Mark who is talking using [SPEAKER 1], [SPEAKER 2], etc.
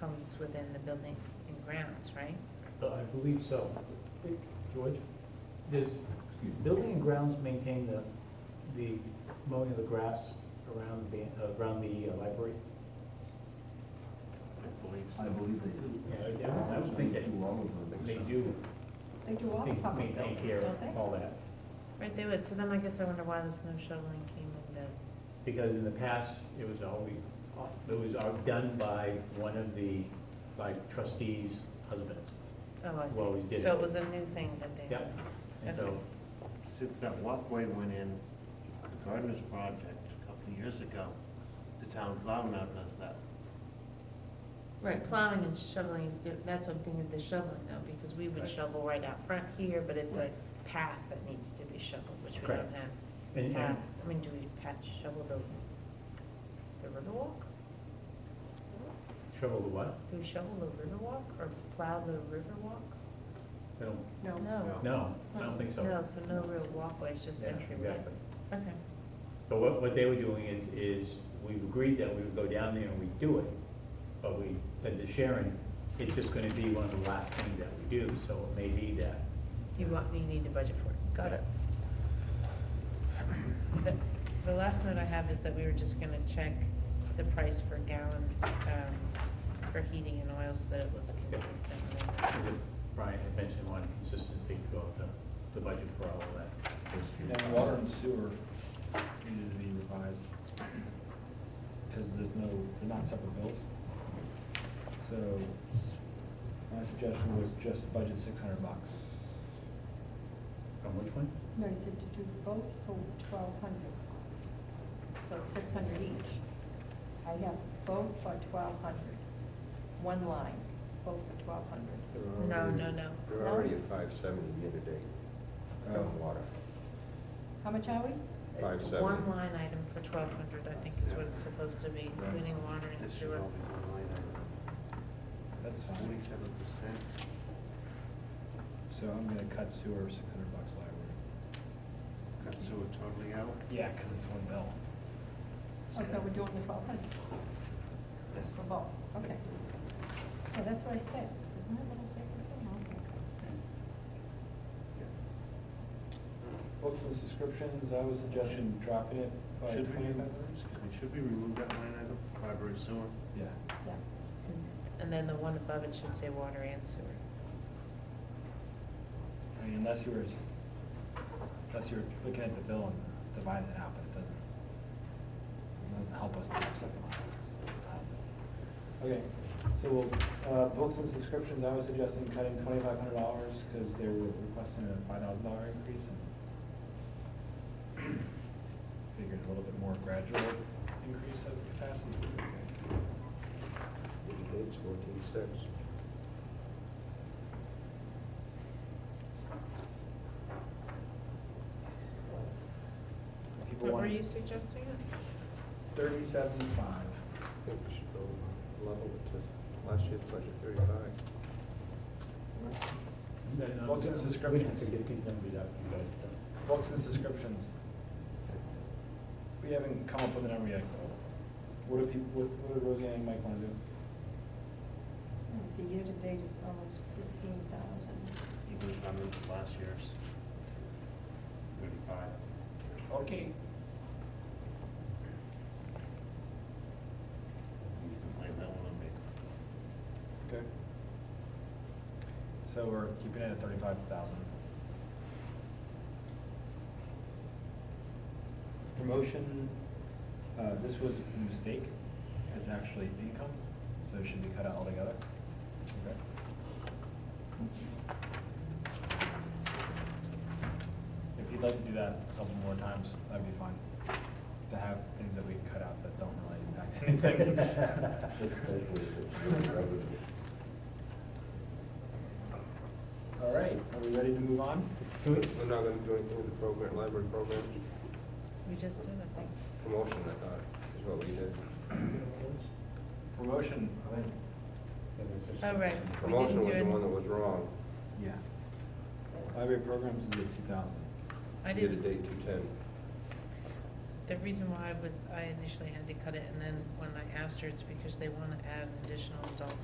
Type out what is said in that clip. [SPEAKER 1] homes within the building and grounds, right?
[SPEAKER 2] Uh, I believe so. George, does building and grounds maintain the, the mowing of the grass around the, around the uh, library?
[SPEAKER 3] I believe
[SPEAKER 4] I
[SPEAKER 3] so.
[SPEAKER 4] believe they do.
[SPEAKER 2] Yeah, I would think that
[SPEAKER 4] all of
[SPEAKER 2] they do,
[SPEAKER 5] They do all
[SPEAKER 2] they
[SPEAKER 5] the public
[SPEAKER 2] maintain
[SPEAKER 5] buildings,
[SPEAKER 2] here,
[SPEAKER 5] don't they?
[SPEAKER 2] all that.
[SPEAKER 1] Right, they would, so then I guess I wonder why the snow shoveling came into,
[SPEAKER 2] Because in the past, it was always, it was all done by one of the, by trustees' husbands.
[SPEAKER 1] oh, I see.
[SPEAKER 2] Well, we did
[SPEAKER 1] So
[SPEAKER 2] it.
[SPEAKER 1] it was a new thing that they.
[SPEAKER 2] Yep, and so,
[SPEAKER 3] Since that walkway went in, the gardeners project a couple of years ago, the town plow now does that.
[SPEAKER 1] Right, plowing and shoveling is, di- that's what I'm thinking, the shoveling though, because we would
[SPEAKER 3] Right.
[SPEAKER 1] shovel right out front here, but it's a
[SPEAKER 3] Right.
[SPEAKER 1] path that needs to be shoveled, which we
[SPEAKER 2] Correct.
[SPEAKER 1] don't have.
[SPEAKER 2] and, and
[SPEAKER 1] Paths, I mean, do we patch shovel the, the riverwalk?
[SPEAKER 2] shovel the what?
[SPEAKER 1] Do we shovel the riverwalk or plow the riverwalk?
[SPEAKER 2] I don't,
[SPEAKER 5] No.
[SPEAKER 1] No.
[SPEAKER 2] no, I don't think so.
[SPEAKER 1] No, so no real walkways, just
[SPEAKER 2] Yeah,
[SPEAKER 1] entryways.
[SPEAKER 2] exactly.
[SPEAKER 1] Okay.
[SPEAKER 2] So what, what they were doing is, is we've agreed that we would go down there and we'd do it, but we, said to Sharon, it's just gonna be one of the last things that we do, so it may be that.
[SPEAKER 1] You want, you need to budget for it. Got it. The, the last note I have is that we were just gonna check the price per gallons, um, for heating and oil so that it was consistent. with-
[SPEAKER 2] Is it- Brian had mentioned one consistency throughout the, the budget for all of that.
[SPEAKER 4] And water and sewer needed to be revised, because there's no, they're not separate bills. So, my suggestion was just budget six hundred bucks.
[SPEAKER 2] From which one?
[SPEAKER 5] No, you said to do both for twelve hundred. So six hundred each. I have both for twelve hundred. One line, both for twelve hundred.
[SPEAKER 1] No, no, no. Oh.
[SPEAKER 6] They're already at five seventy year to date, on water.
[SPEAKER 5] How much are we?
[SPEAKER 6] Five
[SPEAKER 1] It's
[SPEAKER 6] seventy.
[SPEAKER 1] One line item for twelve hundred, I think is what it's supposed to be, including water and
[SPEAKER 3] This should
[SPEAKER 1] sewer.
[SPEAKER 3] all be one line item.
[SPEAKER 4] That's fine.
[SPEAKER 3] Twenty-seven percent.
[SPEAKER 4] So I'm gonna cut sewer six hundred bucks library.
[SPEAKER 3] Cut sewer totally out.
[SPEAKER 4] Yeah, because it's one bill.
[SPEAKER 5] Oh, so we're doing the twelve hundred
[SPEAKER 3] Yes.
[SPEAKER 5] for both, okay. Yeah, that's what I said. Isn't that what I said? Okay.
[SPEAKER 4] Books and subscriptions, I was suggesting dropping it by
[SPEAKER 3] Should we,
[SPEAKER 4] twenty-five hundred.
[SPEAKER 3] excuse me, should we remove that line item, library sewer?
[SPEAKER 4] Yeah.
[SPEAKER 5] Yeah.
[SPEAKER 1] And then the one above it should say water and sewer.
[SPEAKER 4] I mean, unless you were, s- unless you're looking at the bill and dividing it out, but it doesn't, it doesn't help us to have second line. Okay, so, uh, books and subscriptions, I was suggesting cutting twenty-five hundred dollars, because they were requesting a five thousand dollar increase and figured a little bit more gradual increase of capacity. would be okay.
[SPEAKER 6] Year to date's fourteen six.
[SPEAKER 4] People
[SPEAKER 1] What were
[SPEAKER 4] want
[SPEAKER 1] you suggesting?
[SPEAKER 4] Thirty-seven five.
[SPEAKER 6] I think we should go level it to last year's budget, thirty-five.
[SPEAKER 4] Books and
[SPEAKER 2] We have
[SPEAKER 4] subscriptions.
[SPEAKER 2] to get these numbers out, you guys. don't.
[SPEAKER 4] Books and subscriptions. We haven't come up with a number yet. What do people, what, what do Roseanne and Mike wanna do?
[SPEAKER 5] Let me see, year to date is almost fifteen thousand.
[SPEAKER 3] Even if I'm into last year's, thirty-five.
[SPEAKER 4] Okay.
[SPEAKER 3] You can blame that one on me.
[SPEAKER 4] Okay. So we're keeping it at thirty-five thousand. Promotion, uh, this was a mistake, it's actually income, so it should be cut out altogether. Okay. If you'd like to do that a couple more times, that'd be fine, to have things that we cut out that don't really impact anything.
[SPEAKER 6] Just basically, it's really revenue.
[SPEAKER 4] All right, are we ready to move on?
[SPEAKER 2] Can we-
[SPEAKER 6] We're not gonna do anything with the program, library programs,
[SPEAKER 1] We just did, I think.
[SPEAKER 6] promotion, I thought, is what we did.
[SPEAKER 4] Promotion, I think.
[SPEAKER 1] Oh, right. We
[SPEAKER 6] Promotion
[SPEAKER 1] didn't do
[SPEAKER 6] was the
[SPEAKER 1] it.
[SPEAKER 6] one that was wrong,
[SPEAKER 4] Yeah. Library programs is at two thousand.
[SPEAKER 1] I
[SPEAKER 6] year to
[SPEAKER 1] didn't,
[SPEAKER 6] date two ten.
[SPEAKER 1] the reason why was I initially had to cut it, and then when I asked her, it's because they want to add an additional adult